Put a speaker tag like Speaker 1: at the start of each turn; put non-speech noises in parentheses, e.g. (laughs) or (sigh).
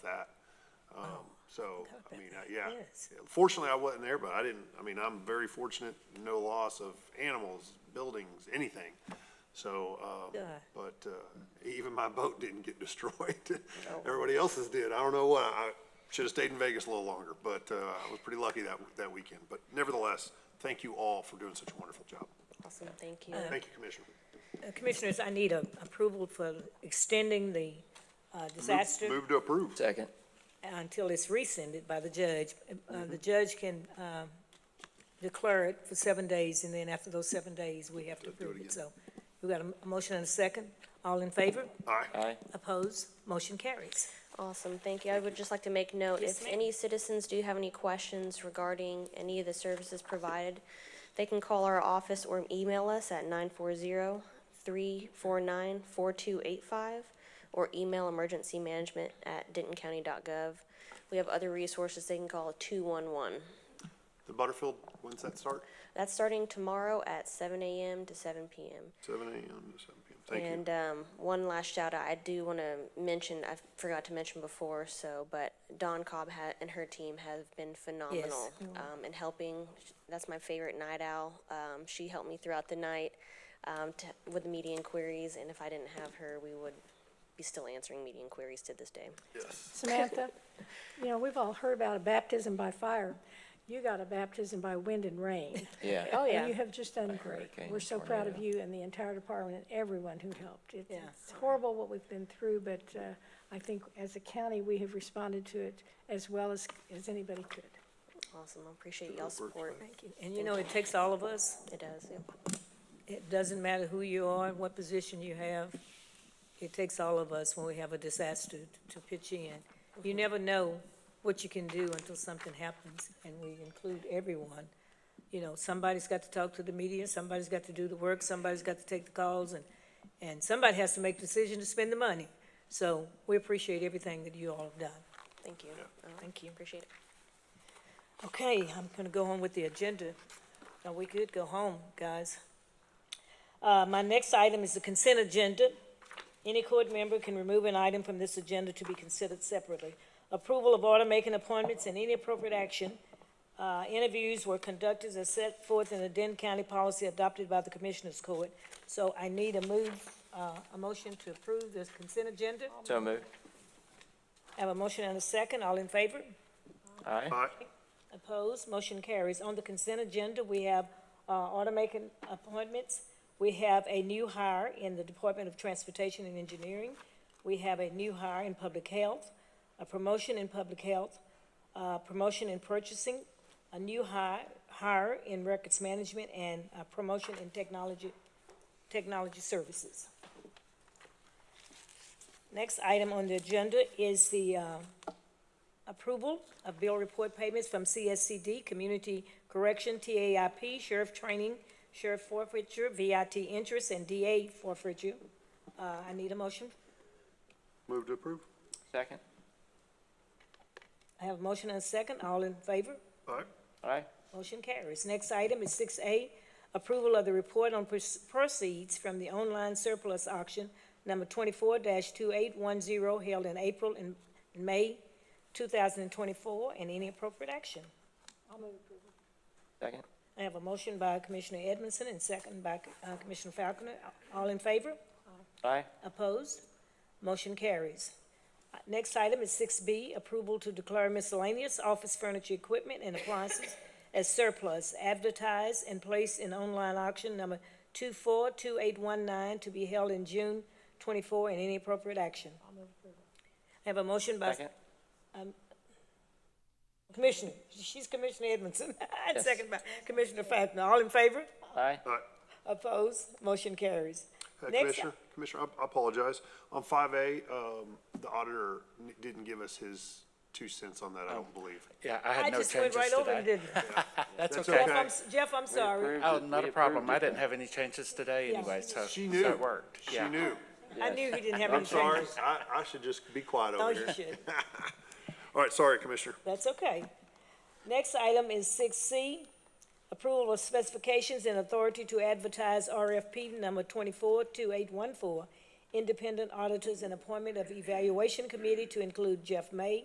Speaker 1: that. Um, so,
Speaker 2: Oh, I
Speaker 1: I
Speaker 2: bet
Speaker 1: mean,
Speaker 2: that
Speaker 1: I- yeah.
Speaker 2: is.
Speaker 1: Fortunately, I wasn't there, but I didn't, I mean, I'm very fortunate, no loss of animals, buildings, anything. So, um,
Speaker 2: Yeah.
Speaker 1: but, uh, even my boat didn't get (laughs) destroyed.
Speaker 2: Oh.
Speaker 1: Everybody else's did. I don't know what, I should have stayed in Vegas a little longer, but, uh, I was pretty lucky that, that weekend. But nevertheless, thank you all for doing such a wonderful job.
Speaker 3: Awesome, thank
Speaker 2: Um,
Speaker 3: you.
Speaker 1: Thank you, Commissioner.
Speaker 2: Uh, Commissioners, I need a approval for extending the uh, disaster.
Speaker 1: Move to approve.
Speaker 4: Second.
Speaker 2: until it's rescinded by the judge. Uh, The judge can um, declare it for seven days, and then after those seven days, we have to approve it. So we got a a motion and a second. All in favor?
Speaker 1: All right.
Speaker 4: Aye.
Speaker 2: Opposed? Motion carries.
Speaker 3: Awesome, thank you. I would just like to make note,
Speaker 2: Yes,
Speaker 3: if
Speaker 2: ma'am.
Speaker 3: any citizens do have any questions regarding any of the services provided, they can call our office or email us at 940-349-4285 or email emergencymanagement@dentoncounty.gov. We have other resources, they can call 211.
Speaker 1: The Butterfield, when's that start?
Speaker 3: That's starting tomorrow at 7 a.m. to 7 p.m.
Speaker 1: Seven AM to seven PM. Thank you.
Speaker 2: uh,
Speaker 3: And um, one last shout out, I do want to mention, I forgot to mention before, so, but Dawn Cobb ha- and her team have been phenomenal um, in helping. That's my favorite night owl. Um, she helped me throughout the night um, to, with the media inquiries, and if I didn't have her, we would be still answering media inquiries to this day.
Speaker 1: Yes.
Speaker 5: Samantha, you know, we've all heard about a baptism by fire. You got a baptism by wind and rain.
Speaker 4: Yeah.
Speaker 5: Oh,
Speaker 2: yeah.
Speaker 5: you have just done great.
Speaker 4: hurricane,
Speaker 5: We're so proud of
Speaker 4: tornado.
Speaker 5: you and the entire department and everyone who helped. It's
Speaker 2: Yeah.
Speaker 5: it's horrible what we've been through, but uh, I think as a county, we have responded to it as well as, as anybody could.
Speaker 3: Awesome, I appreciate y'all's support.
Speaker 2: And you know, it takes all of us.
Speaker 3: It does, yeah.
Speaker 2: It doesn't matter who you are, what position you have. It takes all of us when we have a disaster to pitch in. You never know what you can do until something happens, and we include everyone. You know, somebody's got to talk to the media, somebody's got to do the work, somebody's got to take the calls, and, and somebody has to make the decision to spend the money. So we appreciate everything that you all have done.
Speaker 3: thank you. Uh,
Speaker 2: Thank you.
Speaker 3: Appreciate it.
Speaker 2: Okay, I'm gonna go on with the agenda. Now, we could go home, guys. Uh, my next item is the consent agenda. Any court member can remove an item from this agenda to be considered separately. Approval of order making appointments and any appropriate action. Uh, interviews were conducted as set forth in the Denton County policy adopted by the Commissioners Court. So I need a move, uh, a motion to approve this consent agenda.
Speaker 4: So moved.
Speaker 2: I Have a motion and a second. All in favor?
Speaker 4: Aye.
Speaker 1: All right.
Speaker 2: Opposed, motion carries. On the consent agenda, we have uh, automaking appointments. We have a new hire in the Department of Transportation and Engineering. We have a new hire in Public Health, a promotion in Public Health, uh, promotion in Purchasing, a new hire, hire in Records Management, and a promotion in Technology, Technology Services. Next item on the agenda is the uh, Approval of bill report payments from CSCD, Community Correction, TAIP, Sheriff Training, Sheriff Forfeiture, VIT Interest, and DA Forfeiture. Uh, I need a motion.
Speaker 1: Move to approve.
Speaker 4: Second.
Speaker 2: I have a motion and a second. All in favor?
Speaker 1: All right.
Speaker 4: Aye.
Speaker 2: Motion carries. Next item is six A, approval of the report on proce- proceeds from the online surplus auction number twenty-four two eight one zero held in April and May two thousand and twenty-four, and any appropriate action.
Speaker 4: Second.
Speaker 2: I have a motion by Commissioner Edmondson and second by uh, Commissioner Falconer. All in favor?
Speaker 4: Aye.
Speaker 2: Opposed? Motion carries. Uh, Next item is six B, approval to declare miscellaneous office furniture, equipment, and appliances as surplus, advertised and placed in online auction number two-four-two-eight-one-nine to be held in June twenty-four, and any appropriate action. I have a motion by
Speaker 4: Second.
Speaker 2: Commissioner, she's Commissioner Edmondson, (laughs) and
Speaker 4: Yes.
Speaker 2: second by Commissioner Falconer. All in favor?
Speaker 4: Aye.
Speaker 1: All right.
Speaker 2: Opposed? Motion carries.
Speaker 1: Uh,
Speaker 2: Next,
Speaker 1: Commissioner, Commissioner, I- I apologize. On five A, um, the auditor n- didn't give us his two cents on
Speaker 6: Oh.
Speaker 1: that, I don't believe.
Speaker 6: Yeah, I
Speaker 2: I
Speaker 6: had no
Speaker 2: just went
Speaker 6: changes
Speaker 2: right over it,
Speaker 6: today.
Speaker 2: didn't I?
Speaker 6: That's
Speaker 1: That's
Speaker 6: okay.
Speaker 2: Jeff, I'm, s- Jeff, I'm sorry.
Speaker 4: Approved
Speaker 6: Oh,
Speaker 4: it.
Speaker 6: not
Speaker 4: We
Speaker 6: a problem. I
Speaker 4: approved it.
Speaker 6: didn't have any changes today anyway, so, so
Speaker 1: She knew.
Speaker 6: it worked.
Speaker 1: She
Speaker 6: Yeah.
Speaker 1: knew.
Speaker 2: I
Speaker 4: Yes.
Speaker 2: knew he didn't have any
Speaker 1: I'm sorry,
Speaker 2: changes.
Speaker 1: I, I should just be quiet
Speaker 2: No,
Speaker 1: over
Speaker 2: you
Speaker 1: here.
Speaker 2: should.
Speaker 1: All right, sorry, Commissioner.
Speaker 2: That's okay. Next item is six C, approval of specifications and authority to advertise RFP number twenty-four two eight one four independent auditors and appointment of evaluation committee to include Jeff May,